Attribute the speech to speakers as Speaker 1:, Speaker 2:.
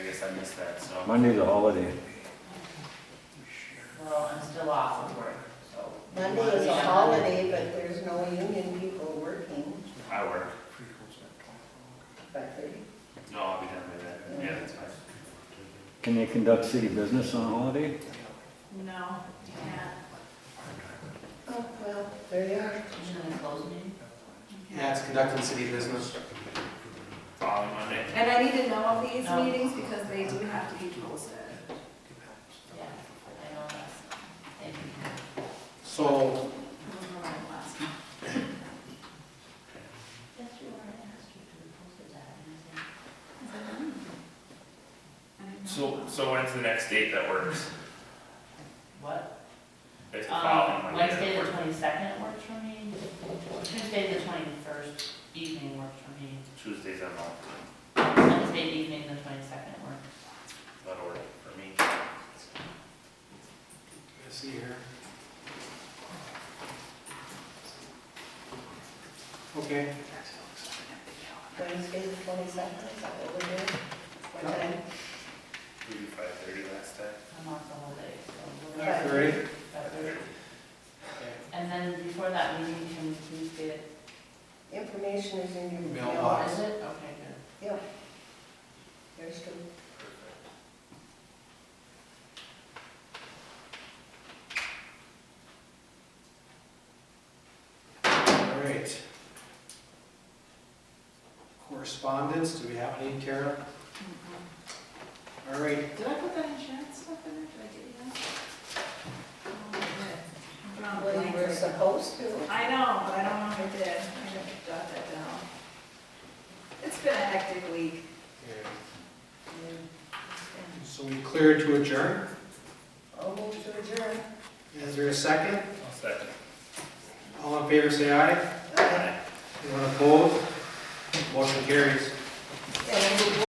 Speaker 1: guess I missed that, so.
Speaker 2: Monday's a holiday.
Speaker 3: Well, I'm still off of work, so.
Speaker 4: Monday is a holiday, but there's no union people working
Speaker 1: I work.
Speaker 4: by thirty.
Speaker 1: No, I'll be done by then. Yeah, that's fine.
Speaker 2: Can they conduct city business on a holiday?
Speaker 5: No, you can't.
Speaker 4: Oh, well, there you are.
Speaker 3: Shouldn't I close me?
Speaker 5: You
Speaker 6: Yeah,
Speaker 5: can't.
Speaker 6: it's conducting city business.
Speaker 1: Following Monday.
Speaker 5: And I need to know of these
Speaker 4: Um,
Speaker 3: No.
Speaker 5: meetings because they do have to be posted.
Speaker 3: Yeah, I know that's, thank you.
Speaker 6: So,
Speaker 5: I don't know when I'm last.
Speaker 3: That's what I asked you to post it at, and I said,
Speaker 5: I don't know.
Speaker 1: So, so when's the next date that works?
Speaker 3: what?
Speaker 1: It's the following
Speaker 3: Um,
Speaker 1: Monday.
Speaker 3: Wednesday, the twenty-second works for me, Tuesday, the twenty-first evening works for me,
Speaker 1: Tuesdays I'm off.
Speaker 3: Wednesday evening, the twenty-second works.
Speaker 1: That'll work for me.
Speaker 6: let's see here. Okay,
Speaker 4: Wednesday, the twenty-second, is that what we're doing? What time?
Speaker 1: We did five thirty last time.
Speaker 3: I'm off the whole day, so. we're-
Speaker 6: five thirty.
Speaker 3: That's it. And then before that meeting, can we please get,
Speaker 4: Information is in your
Speaker 6: Mailbox.
Speaker 3: oh,
Speaker 4: mailbox.
Speaker 3: is it? Okay, good.
Speaker 4: Yeah. There's two.
Speaker 6: All right. Correspondence, do we have any, Tara?
Speaker 3: Mm-hmm.
Speaker 5: Mhm.
Speaker 6: All right,
Speaker 5: Did I put that insurance stuff in there? Did I get you that? Oh, I did. I'm drawing a
Speaker 4: Well,
Speaker 5: blank
Speaker 4: you were
Speaker 5: right now.
Speaker 4: supposed to.
Speaker 5: I know, but I don't know if I did. I should have jot that down. It's been a hectic week.
Speaker 6: Okay.
Speaker 5: It's been-
Speaker 6: so we cleared to adjourn.
Speaker 4: I'll move to adjourn.
Speaker 6: Is there a second?
Speaker 1: I'll second.
Speaker 6: All in favor, say aye.
Speaker 4: Aye.
Speaker 6: Anyone opposed? Motion carries.
Speaker 4: And we